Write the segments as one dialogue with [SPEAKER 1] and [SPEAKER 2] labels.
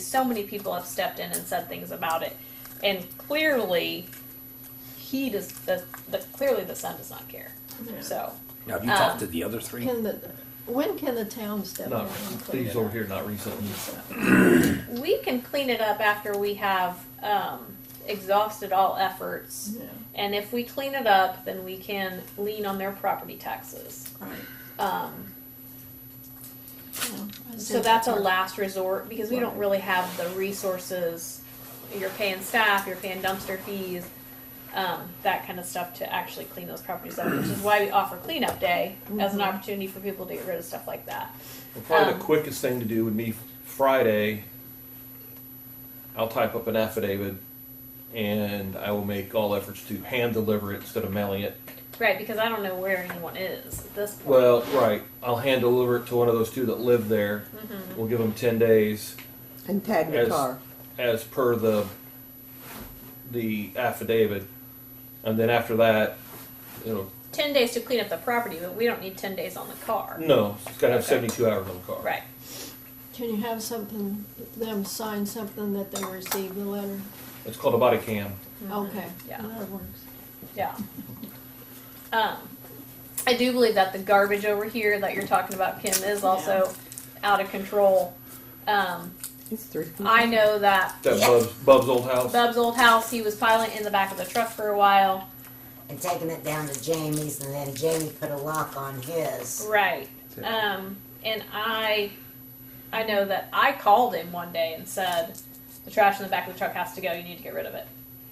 [SPEAKER 1] so many people have stepped in and said things about it. And clearly, he does, the, the, clearly the son does not care. So,
[SPEAKER 2] Now, have you talked
[SPEAKER 1] Um,
[SPEAKER 2] to the other three?
[SPEAKER 3] Can the, when can the town step in
[SPEAKER 4] Not,
[SPEAKER 3] and clean
[SPEAKER 4] these
[SPEAKER 3] it
[SPEAKER 4] over
[SPEAKER 3] up?
[SPEAKER 4] here, not recently.
[SPEAKER 1] we can clean it up after we have, um, exhausted all efforts.
[SPEAKER 3] Yeah,
[SPEAKER 1] And if we clean it up, then we can lean on their property taxes.
[SPEAKER 3] right.
[SPEAKER 1] Um,
[SPEAKER 3] Yeah, I
[SPEAKER 1] So
[SPEAKER 3] think
[SPEAKER 1] that's a
[SPEAKER 3] our-
[SPEAKER 1] last resort because we don't really have the resources. You're paying staff, you're paying dumpster fees, um, that kind of stuff to actually clean those properties up, which is why we offer cleanup day as an
[SPEAKER 3] Mhm.
[SPEAKER 1] opportunity for people to get rid of stuff like that.
[SPEAKER 4] Well, Probably the
[SPEAKER 1] Um,
[SPEAKER 4] quickest thing to do would be Friday. I'll type up an affidavit and I will make all efforts to hand deliver it instead of mailing it.
[SPEAKER 1] Right, because I don't know where anyone is at this point.
[SPEAKER 4] Well, right, I'll hand deliver it to one of those two that live there.
[SPEAKER 1] Mm-hmm.
[SPEAKER 4] We'll give them ten days
[SPEAKER 5] And tag the
[SPEAKER 4] As-
[SPEAKER 5] car.
[SPEAKER 4] as per the, the affidavit. And then after that, it'll,
[SPEAKER 1] Ten days to clean up the property, but we don't need ten days on the car.
[SPEAKER 4] no, it's gotta have
[SPEAKER 1] Okay.
[SPEAKER 4] seventy-two hours on the car.
[SPEAKER 1] Right.
[SPEAKER 3] Can you have something, them sign something that they received the letter?
[SPEAKER 4] It's called a body cam.
[SPEAKER 3] Okay.
[SPEAKER 1] Mm-hmm. Yeah.
[SPEAKER 3] That works.
[SPEAKER 1] Yeah. Um, I do believe that the garbage over here that you're talking about, Kim, is also out of control. Um,
[SPEAKER 5] It's three. feet.
[SPEAKER 1] I know that
[SPEAKER 4] That Bub's, Bub's old house.
[SPEAKER 1] Bub's old house, he was piling in the back of the truck for a while.
[SPEAKER 6] and taking it down to Jamie's, and then Jamie put a lock on his.
[SPEAKER 1] Right. Um, and I, I know that I called him one day and said, the trash in the back of the truck has to go, you need to get rid of it.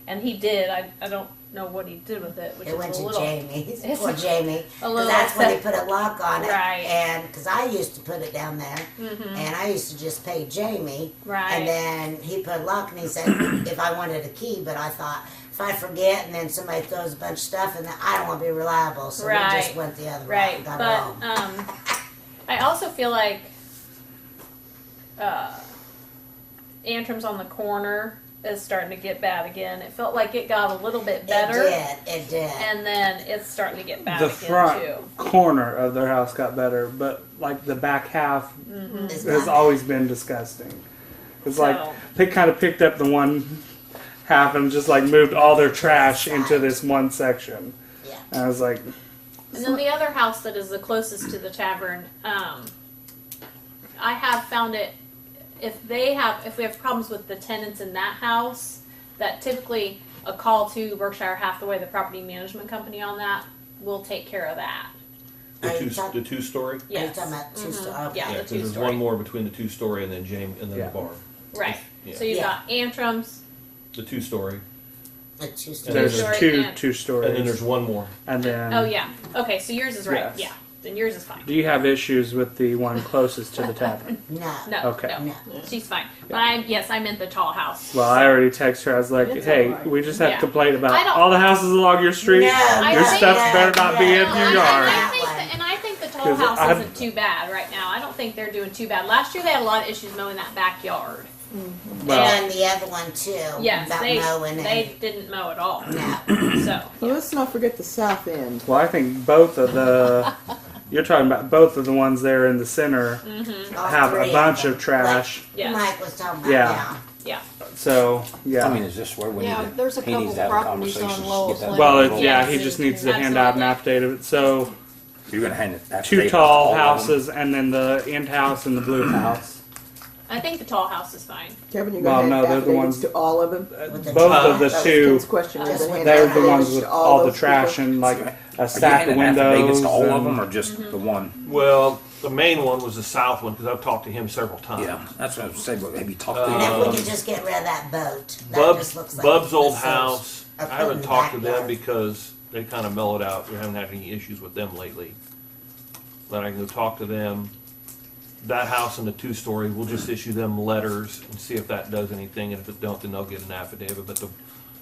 [SPEAKER 1] And he did. I, I don't know what he did with it, which
[SPEAKER 6] It went
[SPEAKER 1] is a
[SPEAKER 6] to
[SPEAKER 1] little,
[SPEAKER 6] Jamie's.
[SPEAKER 1] it's
[SPEAKER 6] Poor
[SPEAKER 1] a-
[SPEAKER 6] Jamie.
[SPEAKER 1] a
[SPEAKER 6] 'Cause
[SPEAKER 1] little
[SPEAKER 6] that's when they
[SPEAKER 1] upset.
[SPEAKER 6] put a lock on it.
[SPEAKER 1] Right.
[SPEAKER 6] And because I used to put it down there,
[SPEAKER 1] Mhm.
[SPEAKER 6] and I used to just pay Jamie. And
[SPEAKER 1] Right.
[SPEAKER 6] then he put a lock, and he said if I wanted a key, but I thought if I forget, and then somebody throws a bunch of stuff, and then I don't want to be reliable, so we
[SPEAKER 1] Right.
[SPEAKER 6] just went the other way
[SPEAKER 1] Right.
[SPEAKER 6] and got
[SPEAKER 1] But,
[SPEAKER 6] home.
[SPEAKER 1] um, I also feel like, uh, Antrim's on the corner is starting to get bad again. It felt like it got a little bit better.
[SPEAKER 6] It did. It did.
[SPEAKER 1] And then it's starting to get bad
[SPEAKER 7] The
[SPEAKER 1] again
[SPEAKER 7] front.
[SPEAKER 1] too.
[SPEAKER 7] corner of their house got better, but like the back half
[SPEAKER 6] It's
[SPEAKER 7] has
[SPEAKER 6] not-
[SPEAKER 7] always been disgusting. It's like
[SPEAKER 1] So-
[SPEAKER 7] they kind of picked up the one half and just like moved all their trash into this one section.
[SPEAKER 6] Yeah.
[SPEAKER 7] And I was like,
[SPEAKER 1] And then the other house that is the closest to the tavern, um, I have found it. If they have, if we have problems with the tenants in that house, that typically a call to Berkshire Hathaway, the property management company on that, will take care of that.
[SPEAKER 6] Are
[SPEAKER 4] The
[SPEAKER 6] you
[SPEAKER 4] two,
[SPEAKER 6] talk-
[SPEAKER 4] the two story?
[SPEAKER 6] Are you
[SPEAKER 1] Yes.
[SPEAKER 6] talking about two
[SPEAKER 1] Mhm.
[SPEAKER 6] sto- oh, okay.
[SPEAKER 1] Yeah,
[SPEAKER 4] Yeah,
[SPEAKER 1] the
[SPEAKER 4] 'cause
[SPEAKER 1] two
[SPEAKER 4] there's
[SPEAKER 1] story.
[SPEAKER 4] one more between the two story and then James and then
[SPEAKER 7] Yeah.
[SPEAKER 4] the bar.
[SPEAKER 1] Right.
[SPEAKER 4] Yeah.
[SPEAKER 1] So you've
[SPEAKER 6] Yeah.
[SPEAKER 1] got Antrim's.
[SPEAKER 4] The two story,
[SPEAKER 6] A two story.
[SPEAKER 7] there's
[SPEAKER 1] story
[SPEAKER 7] two
[SPEAKER 1] and-
[SPEAKER 7] two stories,
[SPEAKER 4] and then there's one more.
[SPEAKER 7] and then
[SPEAKER 1] Oh yeah. Okay. So yours is right.
[SPEAKER 7] Yes.
[SPEAKER 1] Yeah. Then yours is fine.
[SPEAKER 7] Do you have issues with the one closest to the tavern?
[SPEAKER 6] No.
[SPEAKER 1] No.
[SPEAKER 7] Okay.
[SPEAKER 1] No.
[SPEAKER 6] No.
[SPEAKER 1] She's fine. But I yes, I meant the tall house.
[SPEAKER 7] Well, I already texted her. I was like,
[SPEAKER 3] It's
[SPEAKER 7] "Hey,
[SPEAKER 3] alright.
[SPEAKER 7] we just have
[SPEAKER 1] Yeah.
[SPEAKER 7] complained
[SPEAKER 1] I
[SPEAKER 7] about
[SPEAKER 1] don't-
[SPEAKER 7] all the houses along your street.
[SPEAKER 6] No,
[SPEAKER 1] I
[SPEAKER 7] your
[SPEAKER 1] think-
[SPEAKER 7] stuff better not be
[SPEAKER 6] no,
[SPEAKER 7] in
[SPEAKER 1] I-
[SPEAKER 7] your
[SPEAKER 1] I,
[SPEAKER 7] yard."
[SPEAKER 6] That
[SPEAKER 1] think
[SPEAKER 6] one.
[SPEAKER 1] that- and I think the Toll
[SPEAKER 7] 'Cause
[SPEAKER 1] House
[SPEAKER 7] I've-
[SPEAKER 1] isn't too bad right now. I don't think they're doing too bad. Last year they had a lot of issues mowing that backyard.
[SPEAKER 7] well,
[SPEAKER 6] and the other one too.
[SPEAKER 1] Yes,
[SPEAKER 6] about
[SPEAKER 1] they
[SPEAKER 6] mowing
[SPEAKER 1] they didn't mow at all.
[SPEAKER 6] and no.
[SPEAKER 1] So
[SPEAKER 5] Well, let's not forget the south end.
[SPEAKER 7] well, I think both of the you're talking about both of the ones there in the center
[SPEAKER 5] Mm-hmm.
[SPEAKER 6] All
[SPEAKER 7] have
[SPEAKER 6] three
[SPEAKER 7] a bunch
[SPEAKER 6] them.
[SPEAKER 7] of trash.
[SPEAKER 6] Like
[SPEAKER 1] Yes.
[SPEAKER 6] Mike was talking about.
[SPEAKER 7] Yeah.
[SPEAKER 6] Yeah.
[SPEAKER 1] yeah,
[SPEAKER 7] So yeah,
[SPEAKER 2] I mean, is this where we
[SPEAKER 3] Yeah,
[SPEAKER 2] need to,
[SPEAKER 3] there's a
[SPEAKER 2] he
[SPEAKER 3] couple
[SPEAKER 2] needs to have
[SPEAKER 3] properties on
[SPEAKER 2] conversations to
[SPEAKER 3] Lowell's
[SPEAKER 2] get that?
[SPEAKER 3] Lane.
[SPEAKER 7] well,
[SPEAKER 2] ball
[SPEAKER 7] it, yeah, he
[SPEAKER 2] rolling?
[SPEAKER 7] just needs to hand out an update of it. So
[SPEAKER 2] You're gonna hand it.
[SPEAKER 7] two
[SPEAKER 2] affidavit
[SPEAKER 7] tall
[SPEAKER 2] all of them?
[SPEAKER 7] houses, and then the end house and the blue house.
[SPEAKER 1] I think the Tall House is fine.
[SPEAKER 5] Kevin, you're
[SPEAKER 7] Well,
[SPEAKER 5] going
[SPEAKER 7] no,
[SPEAKER 5] to
[SPEAKER 7] they're the
[SPEAKER 5] have affidavits
[SPEAKER 7] ones-
[SPEAKER 5] to all of them?
[SPEAKER 7] Uh,
[SPEAKER 6] With the
[SPEAKER 7] Both
[SPEAKER 6] tar.
[SPEAKER 7] of the
[SPEAKER 5] That was
[SPEAKER 7] two
[SPEAKER 5] Ken's question.
[SPEAKER 6] Just
[SPEAKER 5] Just hand
[SPEAKER 7] They're
[SPEAKER 5] out
[SPEAKER 7] the ones
[SPEAKER 5] affidavits
[SPEAKER 7] with
[SPEAKER 5] to
[SPEAKER 7] all the
[SPEAKER 5] those
[SPEAKER 7] trash
[SPEAKER 5] people.
[SPEAKER 7] and like a
[SPEAKER 2] Are you
[SPEAKER 7] stack of
[SPEAKER 2] handing affidavits
[SPEAKER 7] windows.
[SPEAKER 2] to all of
[SPEAKER 7] and-
[SPEAKER 2] them or just the one?
[SPEAKER 4] Well, the main one was the south one because I've talked to him several times.
[SPEAKER 2] Yeah, that's what I was saying, but have you talked
[SPEAKER 6] And
[SPEAKER 2] to
[SPEAKER 6] if
[SPEAKER 4] Um,
[SPEAKER 6] we could just get rid of that boat, that
[SPEAKER 4] Bub's,
[SPEAKER 6] just looks like
[SPEAKER 4] Bub's old
[SPEAKER 6] a
[SPEAKER 4] house.
[SPEAKER 6] a
[SPEAKER 4] I
[SPEAKER 6] foot in
[SPEAKER 4] haven't
[SPEAKER 6] the
[SPEAKER 4] talked to them
[SPEAKER 6] backyard.
[SPEAKER 4] because they kind of mellowed out. We haven't had any issues with them lately. But I can go talk to them. That house and the two story, we'll just issue them letters and see if that does anything. And if it don't, then they'll get an affidavit. But the,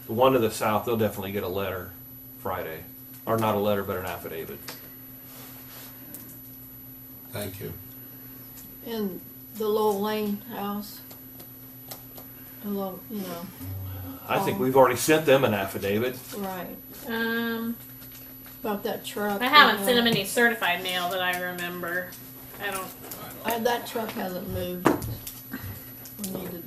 [SPEAKER 4] the one to the south, they'll definitely get a letter Friday, or not a letter, but an affidavit.
[SPEAKER 8] Thank you.
[SPEAKER 3] And the Lowell Lane house. Hello, you know,
[SPEAKER 4] I think
[SPEAKER 3] Oh.
[SPEAKER 4] we've already sent them an affidavit.
[SPEAKER 3] right,
[SPEAKER 1] Um,
[SPEAKER 3] about that truck.
[SPEAKER 1] I haven't
[SPEAKER 3] and,
[SPEAKER 1] sent him
[SPEAKER 3] uh,
[SPEAKER 1] any certified mail that I remember. I don't.
[SPEAKER 3] uh, That truck hasn't moved. We need to